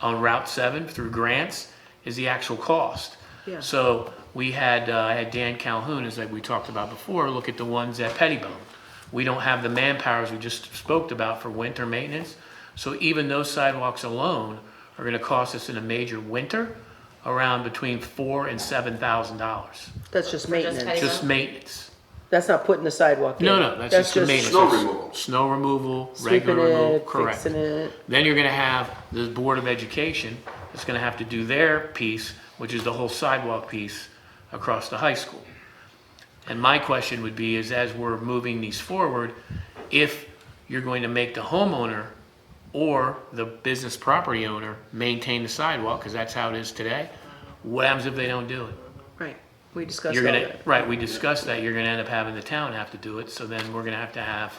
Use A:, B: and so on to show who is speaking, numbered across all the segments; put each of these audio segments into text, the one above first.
A: on Route 7 through grants is the actual cost.
B: Yeah.
A: So we had, uh, I had Dan Calhoun, as we talked about before, look at the ones at Pettibone. We don't have the manpowers we just spoke about for winter maintenance. So even those sidewalks alone are gonna cost us in a major winter around between four and seven thousand dollars,
B: That's just
C: Petty-
B: maintenance.
A: just maintenance.
B: That's not putting the sidewalk in.
A: No, no, that's just the maintenance.
D: Snow removal.
A: Snow removal,
B: Sweeping
A: regular removal,
B: it,
A: correct.
B: fixing it.
A: Then you're gonna have the Board of Education that's gonna have to do their piece, which is the whole sidewalk piece across the high school. And my question would be is as we're moving these forward, if you're going to make the homeowner or the business property owner maintain the sidewalk, because that's how it is today, what happens if they don't do it?
B: Right, we discussed all
A: You're gonna,
B: that.
A: right, we discussed that, you're gonna end up having the town have to do it, so then we're gonna have to have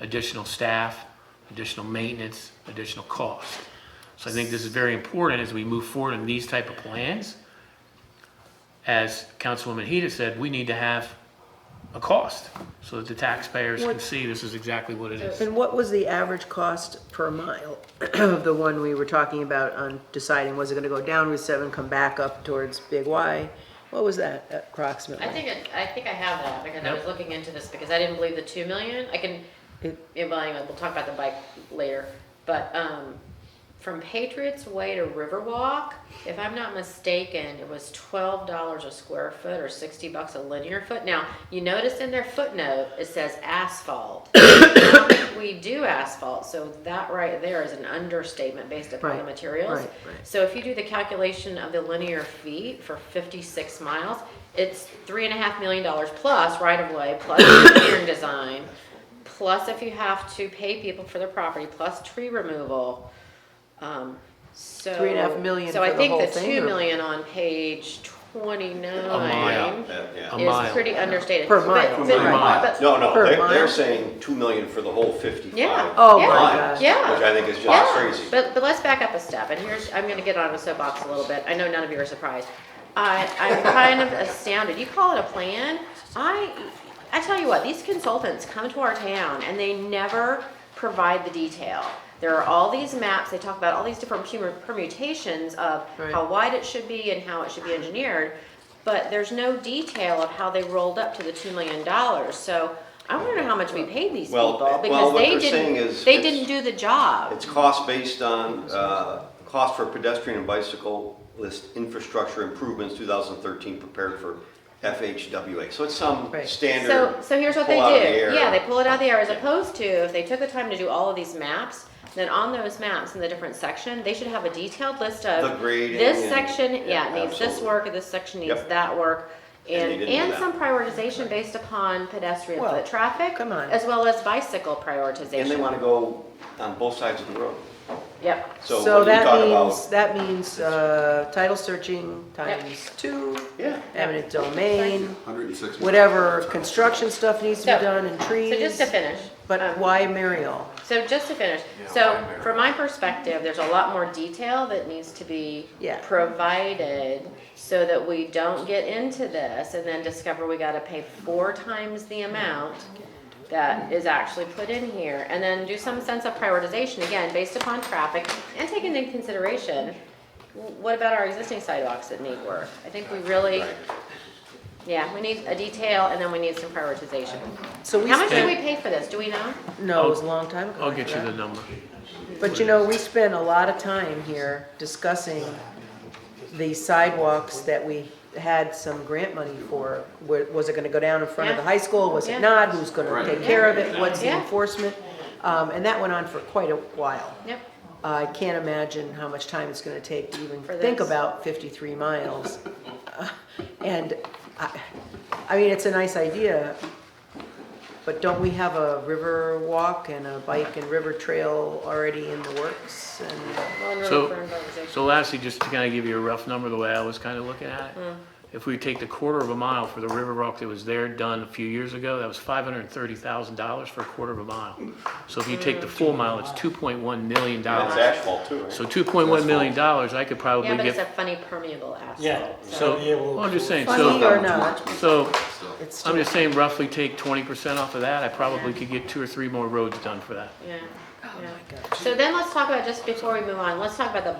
A: additional staff, additional maintenance, additional cost. So I think this is very important as we move forward in these type of plans. As Councilwoman Heda said, we need to have a cost, so that the taxpayers can
B: What-
A: see this is exactly what it is.
B: And what was the average cost per mile of the one we were talking about on deciding, was it gonna go down Route seven, come back up towards Big Y? What was that approximately?
C: I think, it- I think I have that, because I
A: Yep.
C: was looking into this, because I didn't believe the two million, I can,
B: It-
C: yeah, well, anyway, we'll talk about the bike later, but, um, from Patriots Way to Riverwalk, if I'm not mistaken, it was twelve dollars a square foot or sixty bucks a linear foot. Now, you notice in their footnote, it says asphalt. We do asphalt, so that right there is an understatement based upon the
B: Right,
C: materials.
B: right, right.
C: So if you do the calculation of the linear feet for fifty-six miles, it's three and a half million dollars plus right of way, plus engineering design, plus if you have to pay people for their property, plus tree removal. Um, so.
B: Three and a half million
C: So
B: for
C: I
B: the
C: think
B: whole
C: the
B: thing,
C: two
B: or-
C: million on page
A: mile.
C: twenty-nine
A: A
C: is
A: mile.
C: pretty understated.
B: Per
C: But-
B: mile.
C: but-
D: Per
A: mile.
C: but-
E: No, no,
B: Per
E: they're,
B: mile?
E: they're saying two million for the whole fifty-five.
C: Yeah.
B: Oh,
C: Yeah.
B: my
E: miles,
B: gosh.
C: Yeah.
E: Which I think is
C: Yeah,
E: just crazy.
C: But, but let's back up a step, and here's, I'm gonna get on a soapbox a little bit, I know none of you are surprised. I, I'm kind of astounded, you call it a plan, I, I tell you what, these consultants come to our town and they never provide the detail. There are all these maps, they talk about all these different permu- permutations of
B: Right.
C: how wide it should be and how it should be engineered, but there's no detail of how they rolled up to the two million dollars, so I wanna know how much we paid these
E: Well,
C: people,
E: well,
C: because
E: what
C: they
E: they're saying
C: didn't,
E: is
C: they
E: it's-
C: didn't do the job.
E: It's cost based on, uh, cost for pedestrian and bicycle list infrastructure improvements, two thousand thirteen, prepared for FHWA. So it's some
B: Right.
E: standard.
C: So, so here's what they
E: pull out of the air.
C: do. Yeah, they pull it out of the air as opposed to if they took the time to do all of these maps, then on those maps in the different section, they should have a detailed list of.
E: The grading
C: This
E: and-
C: section, yeah,
E: yeah,
C: it needs this
E: absolutely.
C: work, or this section needs
E: Yep.
C: that work.
E: And they
C: And,
E: didn't do
C: and
E: that.
C: some prioritization based upon pedestrian
B: Well,
C: foot traffic.
B: come on.
C: As well as bicycle prioritization.
E: And they wanna go on both sides of the road.
C: Yep.
B: So
E: So when you
B: that
E: talk about-
B: means, that means, uh, title searching times two,
E: Yeah.
B: eminent domain,
D: Hundred and six.
B: whatever construction stuff needs to
C: So-
B: be done and trees.
C: So just to finish.
B: But
C: um,
B: why Muriel?
C: So just to finish,
D: Yeah,
C: so
D: I agree.
C: from my perspective, there's a lot more detail that needs to be
B: Yeah.
C: provided so that we don't get into this and then discover we gotta pay four times the amount that is actually put in here, and then do some sense of prioritization, again, based upon traffic and taking into consideration, wh- what about our existing sidewalks that need work? I think we really, yeah, we need a detail and then we need some prioritization.
B: So we
C: How much did we
B: spent,
C: pay for this? Do we know?
B: no, it was a long time ago.
A: I'll get you the number.
B: But you know, we spend a lot of time here discussing the sidewalks that we had some grant money for. Wa- Was it gonna go down in front of the
C: Yeah.
B: high school? Was
C: Yeah.
B: it not? Who's gonna
D: Right.
B: take care of it? What's the
C: Yeah.
B: enforcement? Um, and that went on for quite a while.
C: Yep.
B: I can't imagine how much time it's gonna take to even
C: For
B: think
C: this.
B: about fifty-three miles. Uh, And, I, I mean, it's a nice idea, but don't we have a river walk and a bike and river trail already in the works? And
C: Well, in order
A: So-
C: for prioritization.
A: So lastly, just to kind of give you a rough number, the way I was kind of looking at
C: Hmm.
A: it, if we take the quarter of a mile for the river rock that was there done a few years ago, that was five hundred and thirty thousand dollars for a quarter of a mile. So if you take the full mile, it's two point one million
E: And it's
A: dollars.
E: asphalt too, right?
A: So two point one million dollars, I could probably
C: Yeah, but it's a
A: get,
C: funny permeable asphalt.
F: Yeah,
A: so,
F: Yeah, well,
A: well, I'm just saying,
B: Funny
A: so,
B: or not,
A: so,
B: it's
A: I'm
B: still,
A: just saying roughly take twenty percent off of that, I probably could get two or three more roads done for that.
C: Yeah, yeah. So then let's talk about, just before we move on, let's talk about the